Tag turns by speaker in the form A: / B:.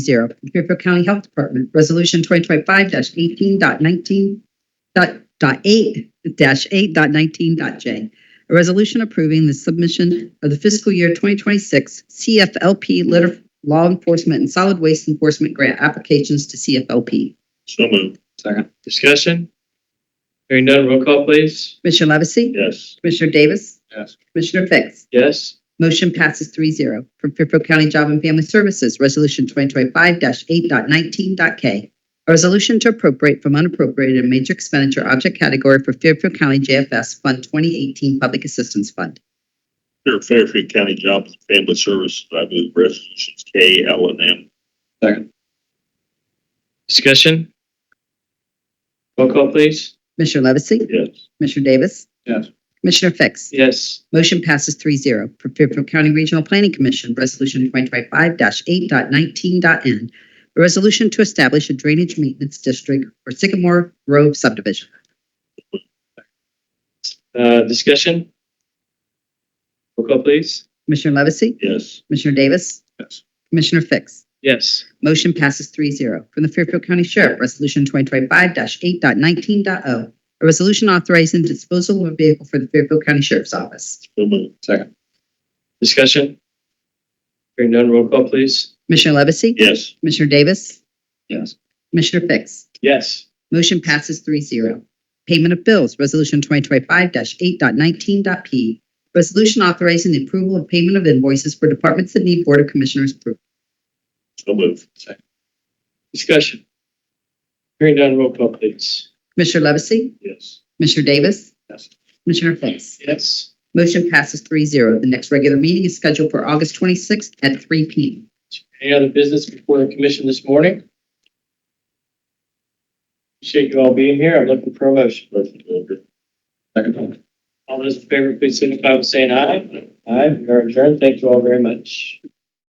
A: zero. Fairfield County Health Department, Resolution twenty twenty five dash eighteen dot nineteen dot dot eight dash eight dot nineteen dot J. A resolution approving the submission of the fiscal year twenty twenty six CFLP litter law enforcement and solid waste enforcement grant applications to CFLP.
B: So moved.
C: Second.
B: Discussion? Hearing none, roll call please.
A: Commissioner Levesey?
B: Yes.
A: Commissioner Davis?
C: Yes.
A: Commissioner Fix?
B: Yes.
A: Motion passes three zero. From Fairfield County Job and Family Services, Resolution 2025-8.19.k. A resolution to appropriate from unappropriated in major expenditure object category for Fairfield County JFS Fund 2018 Public Assistance Fund.
D: Under Fairfield County Jobs and Family Services, I move resolutions K, L, and M.
C: Second.
B: Discussion? Roll call please.
A: Commissioner Levesey?
D: Yes.
A: Commissioner Davis?
C: Yes.
A: Commissioner Fix?
B: Yes.
A: Motion passes three zero. For Fairfield County Regional Planning Commission, Resolution 2025-8.19.n. A resolution to establish a drainage maintenance district for Sycamore Grove subdivision.
B: Uh, discussion? Roll call please.
A: Commissioner Levesey?
D: Yes.
A: Commissioner Davis?
C: Yes.
A: Commissioner Fix?
B: Yes.
A: Motion passes three zero. From the Fairfield County Sheriff, Resolution 2025-8.19.o. oh. A resolution authorizing disposal of a vehicle for the Fairfield County Sheriff's Office.
D: So moved.
C: Second.
B: Discussion? Hearing none, roll call please.
A: Commissioner Levesey?
D: Yes.
A: Commissioner Davis?
C: Yes.
A: Commissioner Fix?
B: Yes.
A: Motion passes three zero. Payment of bills, Resolution 2025-8.19.p. Resolution authorizing the approval of payment of invoices for departments that need Board of Commissioners approval.
D: So moved.
B: Discussion? Hearing none, roll call please.
A: Commissioner Levesey?
D: Yes.
A: Commissioner Davis?
C: Yes.
A: Commissioner Fix?
B: Yes.
A: Motion passes three zero. The next regular meeting is scheduled for August twenty-sixth at three P M.
B: Any other business before the commission this morning? Appreciate you all being here. I'm looking for a motion.
D: Motion to adjourn.
C: Second.
B: All those in favor, please signify by saying aye. Aye, we are adjourned. Thank you all very much.